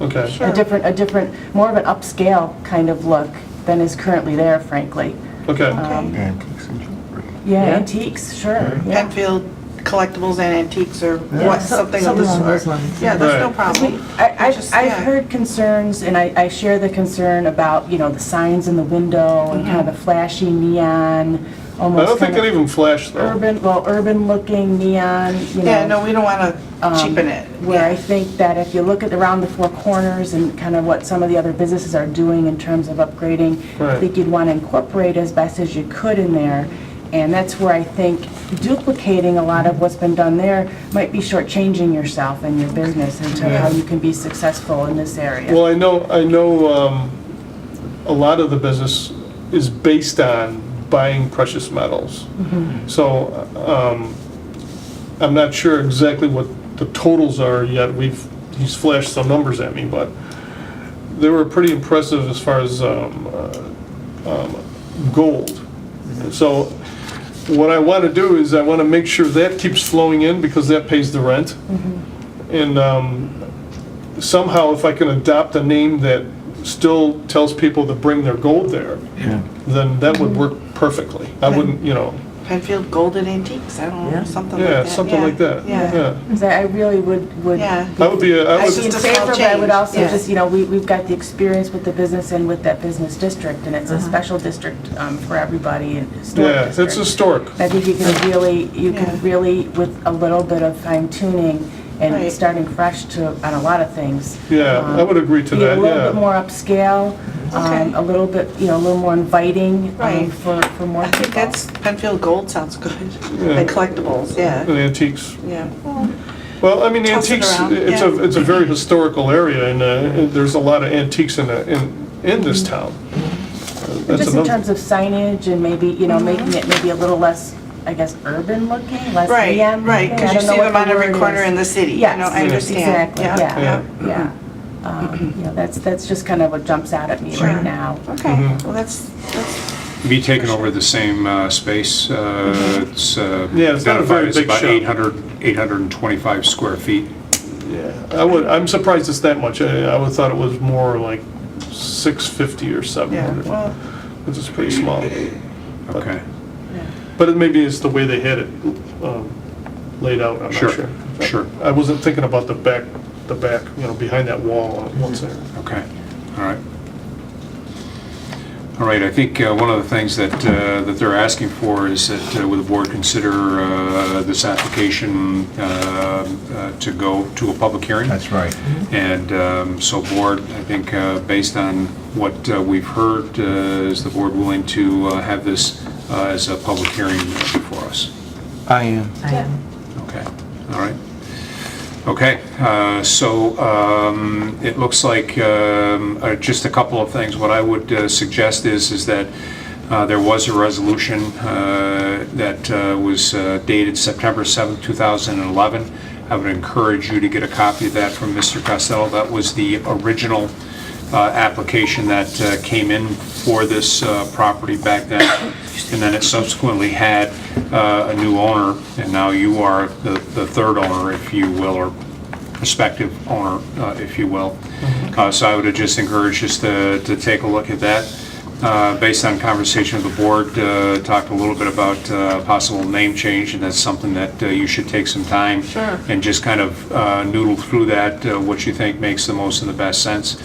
Okay. a different, a different, more of an upscale kind of look than is currently there, frankly. Okay. Um, Yeah, antiques and jewelry. Yeah, Yeah. antiques, sure, yeah. Penfield Collectibles and Antiques or what, So- something something of the along sort. those lines. Yeah, there's no Right. problem. I, I've, Just, I've yeah. heard concerns, and I, I share the concern about, you know, the signs in the window and kind of the flashy neon, I don't almost think kind it of even flashed though. urban, well, urban-looking neon, you know. Yeah, no, we don't want to um, cheapen it. Where I Yeah. think that if you look at around the four corners and kind of what some of the other businesses are doing in terms of upgrading, I Right. think you'd want to incorporate as best as you could in there. And that's where I think duplicating a lot of what's been done there might be shortchanging yourself and your business in terms of how you can be successful in this area. Well, I know, I know um, a lot of the business is based on buying precious metals. So um, I'm not sure exactly what the totals are yet. We've, he's flashed some numbers at me, but they were pretty impressive as far as um, uh, um, gold. So what I want to do is I want to make sure that keeps flowing in because that pays the rent. And um, somehow if I can adopt a name that still tells people to bring their gold there, Yeah. then that would work perfectly. I wouldn't, you know, Penfield Golden Antiques, I don't know, Yeah. something like that. yeah, something like that. Yeah, Because I I really would, would yeah. I would be, a- I I would. in Just a small favor, but I would change, also yeah. just, you know, we, we've got the experience with the business and with that business district, and Uh-huh. it's a special district um, for everybody and historic Yeah, district. it's historic. I think you can really, you Yeah. can really, with a little bit of fine tuning and Right. starting fresh to, on a lot of things. Yeah, I um, would agree to Be a that, little bit yeah. more upscale, um, Okay. a little bit, you know, a little more inviting um, Right. for, for more I think people. that's, Penfield Gold sounds good. Yeah. The collectibles, yeah, And antiques. yeah. Well, I mean, Toss it antiques, around, it's yeah. a, it's a very historical area and uh, and there's a lot of antiques in, the- in, in this Mm-hmm. town. Uh, That's Just in another. terms of signage and maybe, you know, making Mm-hmm. it maybe a little less, I guess, urban looking, less Right, neon. looking. right, I because you don't know see what them the on every word corner is. in the city, you know, Yes, I understand. Exactly, yeah, yeah. Um, You know, that's, that's just kind of what jumps out at me Sure. right now. Mm-hmm. Okay, well, that's, that's, Be taking over the same uh, space. uh, It's uh, Mm-hmm. Yeah, it's not a very identified as big about shop. 800, 825 square feet. I would, I'm surprised it's that much. I I would've thought it was more like 650 or yeah, 700, well, which is pretty small. Okay. But it maybe it's the way they had it um, laid out, I'm not Sure, sure. sure. I wasn't thinking about the back, the back, you know, behind that wall on one side. Okay, all right. All right, I think uh, one of the things that, uh, that they're asking for is that uh, would the board consider uh, this application uh, uh, to go to a public hearing? That's right. Mm-hmm. And um, so board, I think, uh, based on what uh, we've heard, uh, is the board willing to uh, have this uh, as a public hearing for us? I am. Okay, all right. Okay, uh, so um, it looks like um, uh, just a couple of things. What I would uh, suggest is, is that uh, there was a resolution uh, that uh, was uh, dated September seventh, two 2011. I would encourage you to get a copy of that from Mr. Costello. That was the original uh, application that uh, came in for this uh, property back then, and then it subsequently had uh, a new owner, and now you are the the third owner, if you will, or prospective owner, uh, if you will. Uh, So I would just encourage just to to take a look at that. Uh, Based on conversation with the board, uh, talked a little bit about uh, possible name change, and that's something that uh, you should take some time. Sure. And just kind of uh, noodle through that, uh, what you think makes the most and the best sense.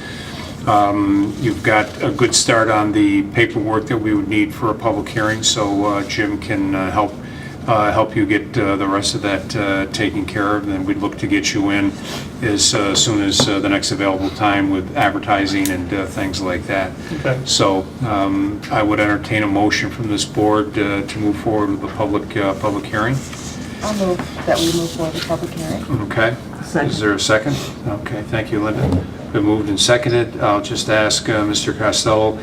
You've got a good start on the paperwork that we would need for a public hearing, so uh, Jim can uh, help, uh, help you get uh, the rest of that uh, taken care of, and then we'd look to get you in as uh, soon as uh, the next available time with advertising and uh, things like that. Okay. So um, I would entertain a motion from this board uh, to move forward with the public, uh, public hearing. I'll move that we move forward to public hearing. Okay. Second. Is there a second? Okay, thank you, Linda. Been moved and seconded. I'll just ask uh, Mr. Costello,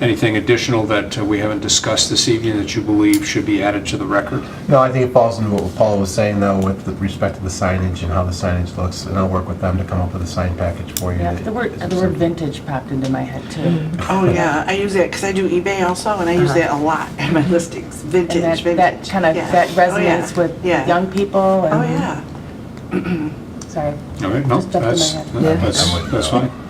anything additional that uh, we haven't discussed this evening that you believe should be added to the record? No, I think it falls into what Paul was saying, though, with the respect to the signage and how the signage looks, and I'll work with them to come up with a sign package for you. Yeah, that- the word, the word vintage popped into my head too. oh, yeah, I use that, because I do eBay also, and I use that a lot in my listings, Uh-huh. And vintage, that, vintage. that kind of, yeah. that Oh, yeah, resonates with yeah. young people Oh, and yeah. so sorry. All right, no, Just jumped in my that's, head. that's, that's fine.